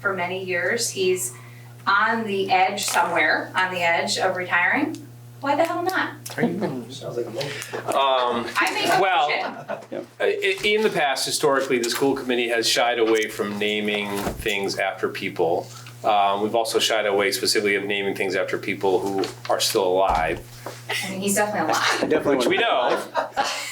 for many years. He's on the edge somewhere, on the edge of retiring. Why the hell not? Sounds like a motion. Um, I make a Well- motion. i- in the past, historically, the school committee has shied away from naming things after people. Um, we've also shied away specifically of naming things after people who are still alive. I mean, he's definitely alive. Definitely. which we know,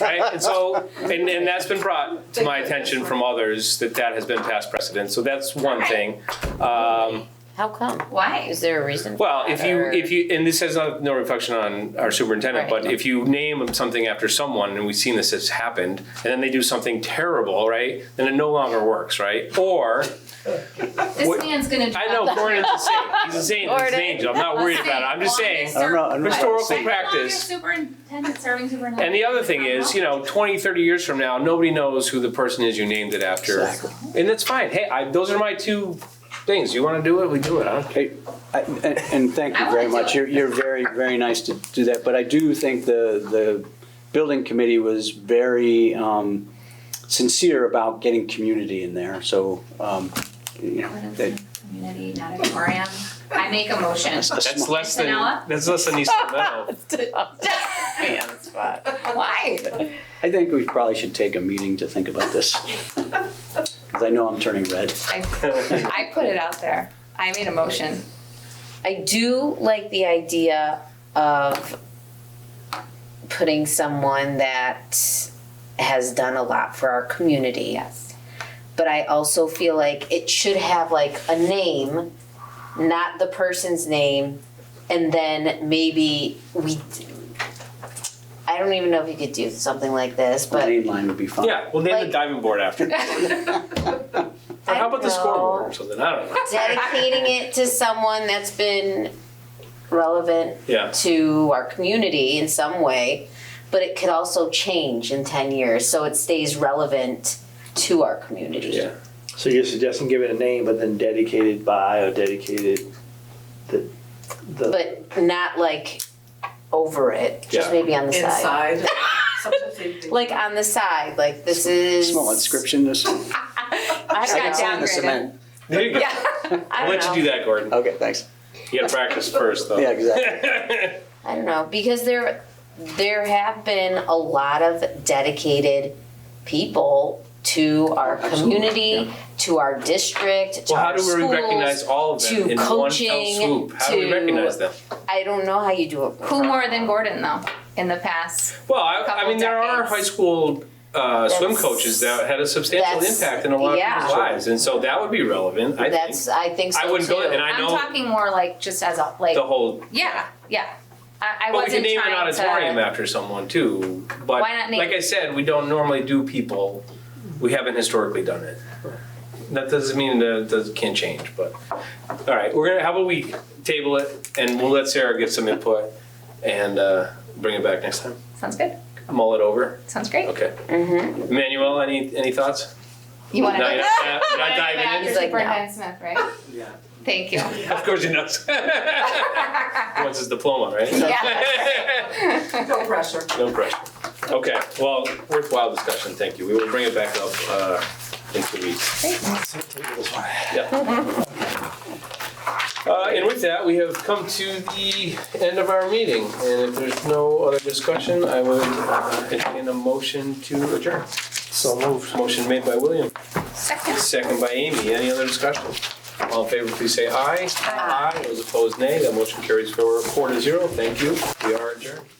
right? And so, and, and that's been brought to my attention from others that that has been past precedent. So that's one thing. Um, How come? Why? Is there a reason? for well, if that, you or- if you and this has not, no reflection on our superintendent, Right. but if you name something after someone, and we've seen this has happened, and then they do something terrible, right? Then it no longer works, right? Or This What- man's gonna. I know Gordon's a saint. He's a saint. He's an Gordon. angel. I'm not worried about it. I'm just saying. I don't know, I'm not- Historical How long your practice. Superintendent, serving superintendent. And the other thing is, you know, 20, 30 years from now, nobody knows who the person is you named it after. Exactly. And that's fine. Hey, I, those are my two things. You want to do it, we do it. I don't care. Hey, I- And and thank I you very wanna do it. much. You're, you're very, very nice to do that, but I do think the, the building committee was very um, sincere about getting community in there, so, um, you What know, is that- it? Community, not auditorium. I make a motion. That's less than Antonella? that's less than East Meadow. Me on the spot. Why? I think we probably should take a meeting to think about this. Because I know I'm turning red. I, I put it out there. I made a motion. I do like the idea of putting someone that has done a lot for our community. Yes. But I also feel like it should have like a name, not the person's name, and then maybe we. I don't even know if you could do something like this, but Main line would be fine. Yeah, we'll name Like- the diving board after. Or I how about the don't know. scoreboard or something? I don't know. dedicating it to someone that's been relevant Yeah. to our community in some way, but it could also change in 10 years so it stays relevant to our community. Yeah. So you're suggesting give it a name, but then dedicated by or dedicated the, the, But not like over it, just Yeah. maybe on the side. inside. Sometimes they think- Like on the side, like this is. Small inscription, this, I I don't can got see know. in the downgraded. cement. There you go. Yeah. I I'll don't let know. you do that, Gordon. Okay, thanks. You got to practice first, though. Yeah, I don't know because there there have been a lot of dedicated people to our Absolutely, community, yeah. to our district, to well, how our do we schools. recognize all of them to in coaching, one fell swoop? How do we to- recognize them? I don't know how you do it. Who more than Gordon though? In the past, Well, I, I Couple mean, there are decades. high school uh, swim That's- coaches that had a substantial that's- impact in a lot yeah. of people's lives, and so that would be relevant. I That's think I think so I wouldn't too. go, and I I'm know talking more like just as a like. the whole. yeah, yeah. I, I But we wasn't could name an trying auditorium to. after someone too. But Why not name- like I said, we don't normally do people. We haven't historically done it. That doesn't mean that that can't change. But all right, we're gonna. How about we table it, and we'll let Sarah get some input, and uh, bring it back next time. Sounds good. Mull it over. Sounds great. Okay. Manuel, any any thoughts? You want to? No, you're not, you're not- you're not diving He's in. like, no. Superintendent Smith, right? Yeah. Thank you. Of course he knows. He Wants his diploma, right? No pressure. No pressure. Okay, well, worthwhile discussion, thank you. We will bring it back up uh, in two weeks. Yeah. Uh, And with that, we have come to the end of our meeting. And if there's no other discussion, I would uh, entertain a motion to adjourn. so moved. Motion made by William, Second. second by Amy. Any other discussion? All in favor, please say aye. Aye. Those opposed, nay. That motion carries for four to zero. Thank you. We are adjourned.